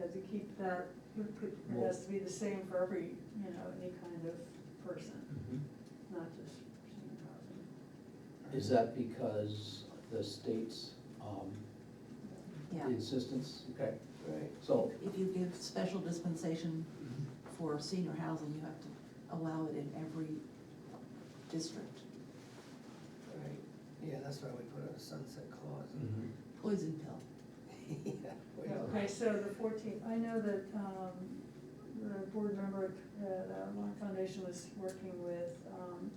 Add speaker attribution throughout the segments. Speaker 1: know, to keep that, it has to be the same for every, you know, any kind of person, not just senior housing.
Speaker 2: Is that because the state's um,
Speaker 3: Yeah,
Speaker 2: insistence? Okay,
Speaker 4: Right.
Speaker 2: so,
Speaker 3: if you give special dispensation for senior housing, you have to allow it in every district.
Speaker 4: Right, yeah, that's why we put a sunset clause in.
Speaker 2: Mhm.
Speaker 3: Poison pill.
Speaker 4: Yeah, we don't-
Speaker 1: Okay, so the fourteenth, I know that, um, the board member at, uh, Lime Foundation was working with, um,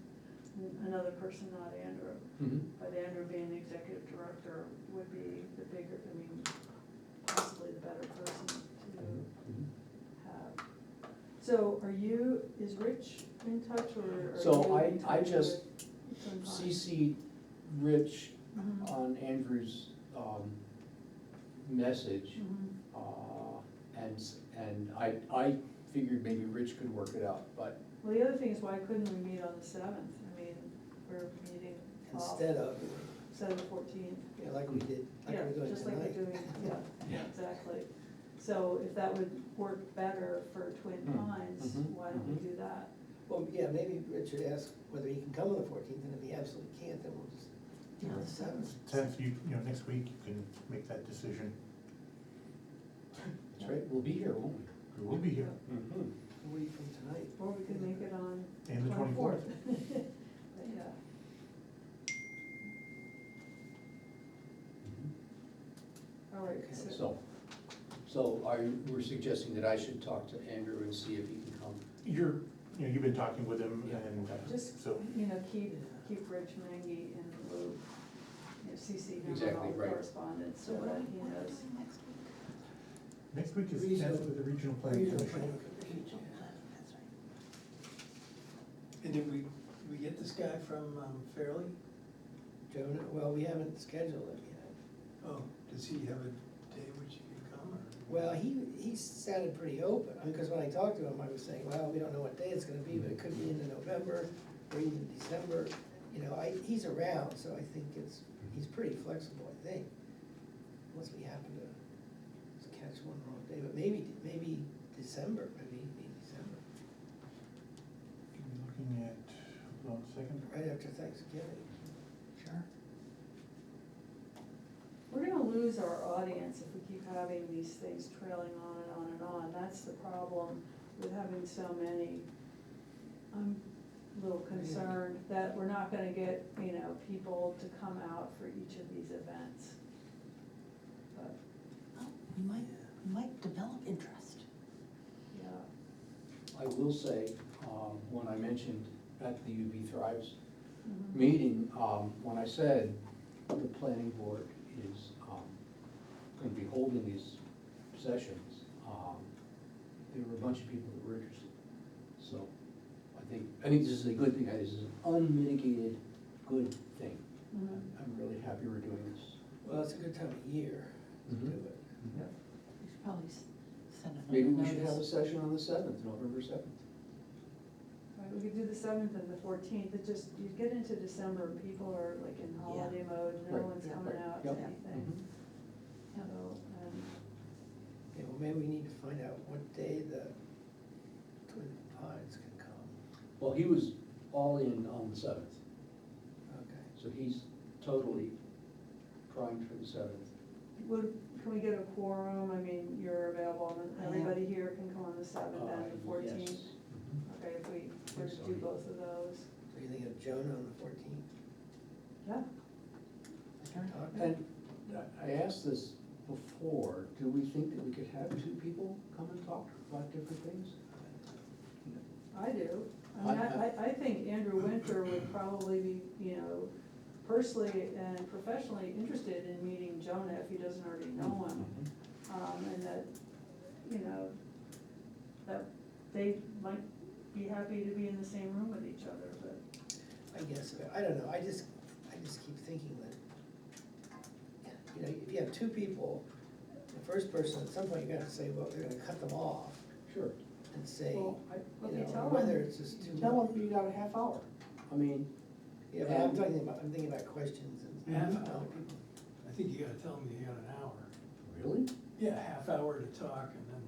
Speaker 1: another person, not Andrew.
Speaker 2: Mhm.
Speaker 1: But Andrew being the executive director would be the bigger, I mean, possibly the better person to
Speaker 2: Mhm.
Speaker 1: have. So are you, is Rich in touch or are
Speaker 2: So
Speaker 1: you
Speaker 2: I-
Speaker 1: in
Speaker 2: I
Speaker 1: touch
Speaker 2: just
Speaker 1: with- from Vine?
Speaker 2: CC Rich
Speaker 1: Mhm,
Speaker 2: on Andrew's um, message,
Speaker 1: mhm.
Speaker 2: uh, and, s- and I, I figured maybe Rich could work it out, but
Speaker 1: Well, the other thing is why couldn't we meet on the seventh? I mean, we're meeting off,
Speaker 4: Instead of,
Speaker 1: seven fourteen.
Speaker 4: yeah, like we did, like
Speaker 1: Yeah,
Speaker 4: we're doing
Speaker 1: just like we're
Speaker 4: tonight.
Speaker 1: doing, yeah,
Speaker 2: Yeah.
Speaker 1: exactly. So if that would work better for Twin
Speaker 5: Mm.
Speaker 2: Hmm,
Speaker 1: Pines,
Speaker 5: Mm-hmm.
Speaker 2: mhm,
Speaker 1: why don't we
Speaker 2: mhm.
Speaker 1: do that?
Speaker 4: Well, yeah, maybe Richard asked whether he can come on the fourteenth, and if he absolutely can't, then we'll just do it on the seventh.
Speaker 5: Tenth, you, you know, next week you can make that decision.
Speaker 2: that's right, we'll be here, won't
Speaker 5: We will be here.
Speaker 2: we? Mhm.
Speaker 4: A week from tonight.
Speaker 1: Or we could make it on.
Speaker 5: And the 24th.
Speaker 1: But, Yeah, all right,
Speaker 4: Okay,
Speaker 1: so,
Speaker 2: Mm-hmm. So, so are, you- we're suggesting that I should talk to Andrew and see if he can come?
Speaker 5: You're, you know, you've been talking with him
Speaker 2: Yeah.
Speaker 5: and
Speaker 1: Just-
Speaker 5: so,
Speaker 1: you know, keep, keep Rich Mangy in the loop, you know, CC him on
Speaker 2: Exactly,
Speaker 1: all the
Speaker 2: right.
Speaker 1: correspondence, so
Speaker 3: So what are
Speaker 1: that
Speaker 3: we,
Speaker 1: he
Speaker 3: what are we
Speaker 1: knows.
Speaker 3: doing next week?
Speaker 5: next week is
Speaker 4: Regional-
Speaker 5: tenth with the regional planning
Speaker 4: Regional
Speaker 5: commission.
Speaker 4: Planning Commission,
Speaker 3: Rachel,
Speaker 4: yeah.
Speaker 3: that's right.
Speaker 4: And did we, we get this guy from um, Fairleigh? Jonah, well, we haven't scheduled him yet.
Speaker 6: Oh, does he have a day which he can come or?
Speaker 4: Well, he, he sounded pretty open, because when I talked to him, I was saying, well, we don't know what day it's gonna be, but it could be into November or even December. You know, I, he's around, so I think it's, he's pretty flexible, I think, unless we happen to catch one wrong day, but maybe, maybe December, maybe, maybe December,
Speaker 5: You're Looking at, hold on a second.
Speaker 4: right after Thanksgiving.
Speaker 3: Sure.
Speaker 1: We're gonna lose our audience if we keep having these things trailing on and on and on, that's the problem with having so many. I'm a little concerned that we're not gonna get, you know, people to come out for each of these events. But,
Speaker 3: Well, We Oh, might, we might develop interest.
Speaker 1: yeah.
Speaker 2: I will say, um, when I mentioned at the UB Thrives
Speaker 1: Mhm.
Speaker 2: meeting, um, when I said the planning board is going to be holding these sessions, um, there were a bunch of people that were interested. So I think, I think this is a good thing, this is an unmitigated good thing.
Speaker 1: Mhm.
Speaker 2: I'm I'm really happy we're doing this.
Speaker 4: Well, it's a good time of year to do
Speaker 2: Mhm.
Speaker 4: it.
Speaker 3: We should probably s- send another
Speaker 2: Maybe we should have a
Speaker 3: notice.
Speaker 2: session on the seventh, November seventh.
Speaker 1: Right, we could do the seventh and the fourteenth, it just, you get into December, and people are like in holiday mode, no
Speaker 2: Right,
Speaker 1: one's
Speaker 3: yeah, Mm-hmm.
Speaker 1: coming
Speaker 2: right,
Speaker 1: out to
Speaker 2: yep.
Speaker 1: anything. So, um,
Speaker 4: Yeah, well, maybe we need to find out what day the Twin Pines can come,
Speaker 2: Well, he was all in on the seventh,
Speaker 4: okay.
Speaker 2: so he's totally primed for the seventh.
Speaker 1: would, can we get a quorum, I mean, you're available, and
Speaker 3: I am.
Speaker 1: everybody here can come on the seventh
Speaker 2: Uh,
Speaker 1: and the fourteenth? Okay, if we, we're to do
Speaker 2: Sorry.
Speaker 1: both of those,
Speaker 4: So you think of Jonah on the fourteenth?
Speaker 1: yeah,
Speaker 3: Sure.
Speaker 2: And I- I asked this before, do we think that we could have two people come and talk about different things?
Speaker 1: I do. I mean, I, I, I think Andrew Winter would probably be, you know, personally and professionally interested in meeting Jonah if he doesn't already know him. um, and that, you know, that they might be happy to be in the same room with each other, but.
Speaker 4: I guess, but I don't know, I just, I just keep thinking that, you know, if you have two people, the first person, at some point, you're gonna say, well, they're gonna cut them off
Speaker 2: Sure.
Speaker 4: and say,
Speaker 2: Well,
Speaker 4: you
Speaker 2: I-
Speaker 1: Well, you
Speaker 4: know,
Speaker 1: tell
Speaker 4: whether
Speaker 1: them-
Speaker 4: it's just too
Speaker 2: you
Speaker 4: much.
Speaker 2: Tell them you got a half hour. I mean,
Speaker 4: Yeah, but I'm
Speaker 2: and-
Speaker 4: talking about, I'm thinking about questions and,
Speaker 2: Yeah.
Speaker 4: you know, people,
Speaker 6: I think you gotta tell him you got an hour.
Speaker 2: really?
Speaker 6: yeah, half hour to talk and then